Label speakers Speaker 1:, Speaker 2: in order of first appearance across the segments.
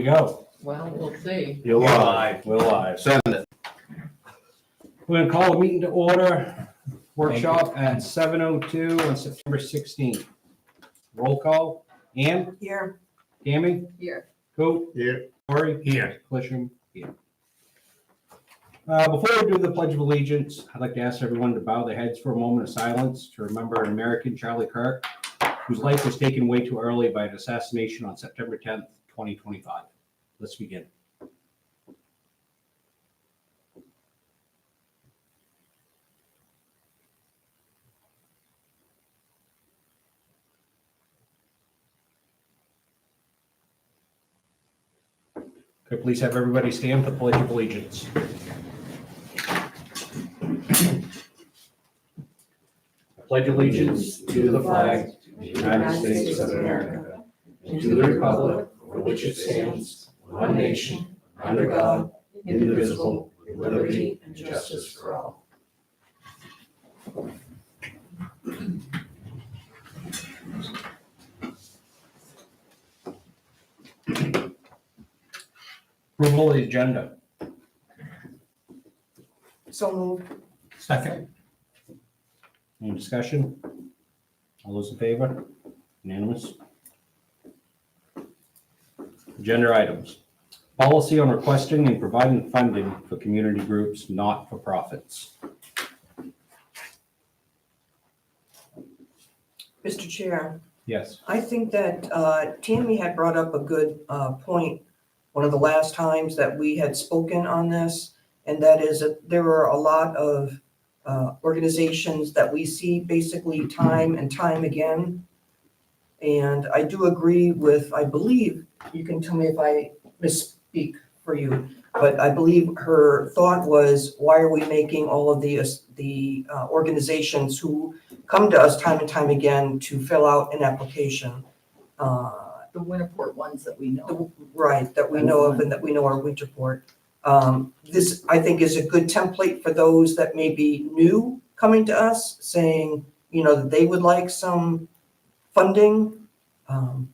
Speaker 1: we go.
Speaker 2: Well, we'll see.
Speaker 1: You're
Speaker 3: live.
Speaker 1: We're live.
Speaker 3: Send it.
Speaker 1: We're gonna call a meeting to order, workshop at seven oh two on September sixteenth. Roll call, Ann,
Speaker 4: Here.
Speaker 1: Tammy,
Speaker 2: Here.
Speaker 1: Coop,
Speaker 3: Yeah.
Speaker 1: Cory. Here. Clisham, here. Uh, before we do the Pledge of Allegiance, I'd like to ask everyone to bow their heads for a moment of silence to remember an American, Charlie Kirk, whose life was taken way too early by an assassination on September tenth, twenty twenty-five. Let's begin. Could I please have everybody stand for the Pledge of Allegiance? Pledge allegiance to the flag of the United States of America and to the republic for which it stands, one nation, under God, indivisible, with liberty and justice for all. Approval of the agenda.
Speaker 4: So moved.
Speaker 1: Second. Any discussion? All those in favor? Unanimous? Agenda items. Policy on requesting and providing funding for community groups, not for profits.
Speaker 4: Mr. Chair,
Speaker 1: Yes.
Speaker 4: I think that uh, Tammy had brought up a good uh, point one of the last times that we had spoken on this, and that is that there are a lot of uh, organizations that we see basically time and time again. And I do agree with, I believe, you can tell me if I misspeak for you, but I believe her thought was, why are we making all of the, the uh, organizations who come to us time and time again to fill out an application. uh,
Speaker 2: The Winterport ones that we know.
Speaker 4: the- Right, that we know of and that we know are Winterport. Um, This, I think, is a good template for those that may be new coming to us, saying, you know, that they would like some funding. um,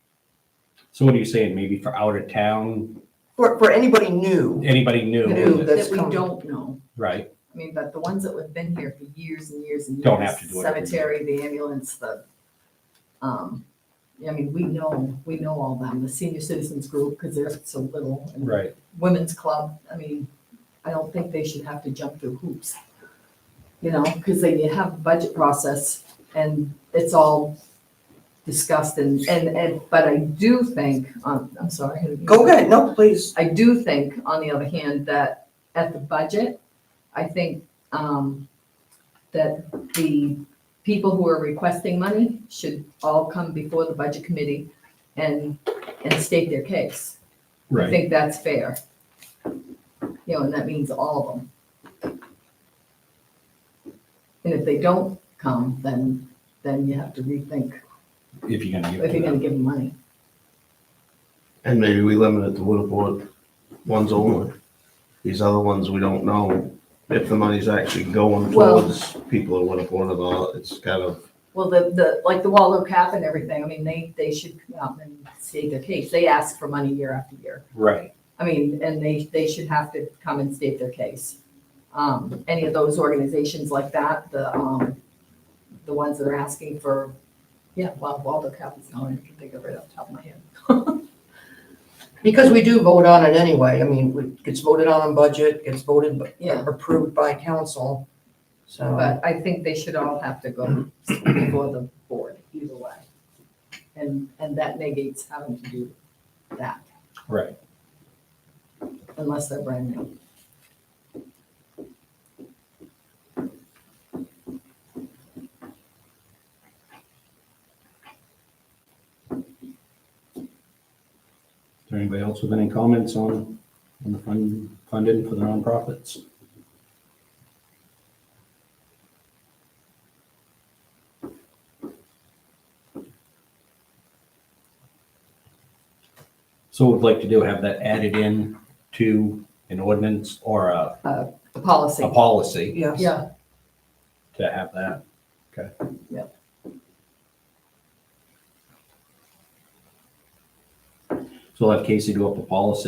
Speaker 1: So what are you saying? Maybe for out of town,
Speaker 4: For, for anybody new,
Speaker 1: anybody
Speaker 4: New,
Speaker 1: new,
Speaker 4: that- that's
Speaker 2: That we
Speaker 4: coming.
Speaker 2: don't know.
Speaker 1: right?
Speaker 2: I mean, but the ones that have been here for years and years and years.
Speaker 1: Don't have to do it every year.
Speaker 2: Cemetery, the ambulance, the, um, I mean, we know, we know all them, the senior citizens group, because they're so little. and
Speaker 1: Right.
Speaker 2: Women's club, I mean, I don't think they should have to jump through hoops. You know, because they have a budget process and it's all discussed and, and, and, but I do think, um, I'm sorry. I had a-
Speaker 4: go ahead, no, please.
Speaker 2: I do think, on the other hand, that at the budget, I think um, that the people who are requesting money should all come before the budget committee and, and state their case. I
Speaker 1: Right.
Speaker 2: think that's fair. You know, and that means all of them. And if they don't come, then, then you have to rethink
Speaker 1: If you're gonna give it
Speaker 2: if
Speaker 1: to
Speaker 2: you're gonna
Speaker 1: them.
Speaker 2: give them money.
Speaker 3: And maybe we limit it to Woodport ones only. These other ones, we don't know if the money's actually going
Speaker 2: Well-
Speaker 3: towards people in Woodport or not. It's kind of,
Speaker 2: Well, the, the, like the Waldo Cap and everything, I mean, they, they should come out and state their case. They ask for money year after year.
Speaker 1: Right.
Speaker 2: I mean, and they, they should have to come and state their case. Um, any of those organizations like that, the, um, the ones that are asking for, yeah, well, Waldo Cap is the only one I can think of right off the top of my head.
Speaker 4: Because we do vote on it anyway. I mean, it gets voted on on budget, gets voted,
Speaker 2: Yeah.
Speaker 4: approved by council, so.
Speaker 1: Um,
Speaker 2: But I think they should all have to go
Speaker 1: Mm-hmm.
Speaker 2: before the board either way. And, and that negates having to do that
Speaker 1: Right.
Speaker 2: unless they're brand new.
Speaker 1: Is there anybody else with any comments on, on the fund, funding for the nonprofits? So would like to do, have that added in to an ordinance or a,
Speaker 2: The policy.
Speaker 1: a policy
Speaker 4: Yes.
Speaker 2: Yeah,
Speaker 1: to have that. Okay.
Speaker 2: Yep.
Speaker 1: So I'll have Casey do up the policy